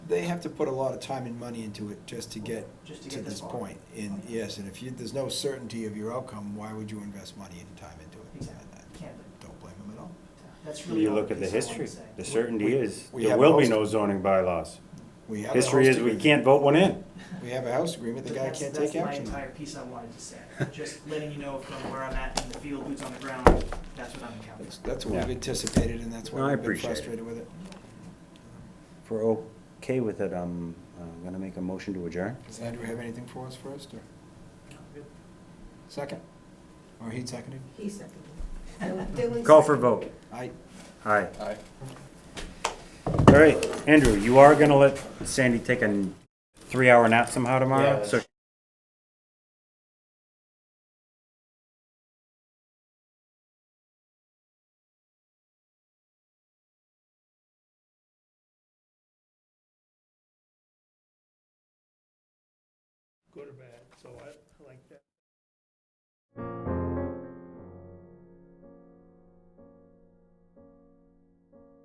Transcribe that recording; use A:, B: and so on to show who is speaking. A: they have to put a lot of time and money into it just to get
B: Just to
A: to
B: get this
A: this
B: far.
A: point. And yes, and if you, there's no certainty of your outcome, why would you invest money and time into it?
B: Exactly.
A: I-
B: Can't do
A: I Don't blame them at all.
B: uh, That's really
C: You
B: all
C: look
B: the
C: at the
B: piece I wanted
C: history,
B: to say.
C: the
A: We-
C: certainty is,
A: we
C: there
A: have
C: will
A: most-
C: be no zoning bylaws.
A: We have a
C: History
A: host
C: is, we
A: agreement.
C: can't vote one in.
A: We have a house agreement, the
B: But
A: guy
B: that's-
A: can't take action.
B: That's my entire piece I wanted to say, just letting you know from where I'm at in the field, boots on the ground, that's what I'm encountering.
A: That's- That's what we've
C: Yeah.
A: anticipated, and that's
C: No, I
A: why we've been
C: appreciate it.
A: frustrated with it.
C: If we're okay with it, I'm, I'm gonna make a motion to adjourn.
A: Does Andrew have anything for us first, or second? Or he seconded?
D: He seconded. Dylan
C: Call for
D: seconded.
C: vote.
A: I,
C: Aye. Aye. All right, Andrew, you are gonna let Sandy take a three-hour nap somehow tomorrow? So
E: good or bad, so I I like that.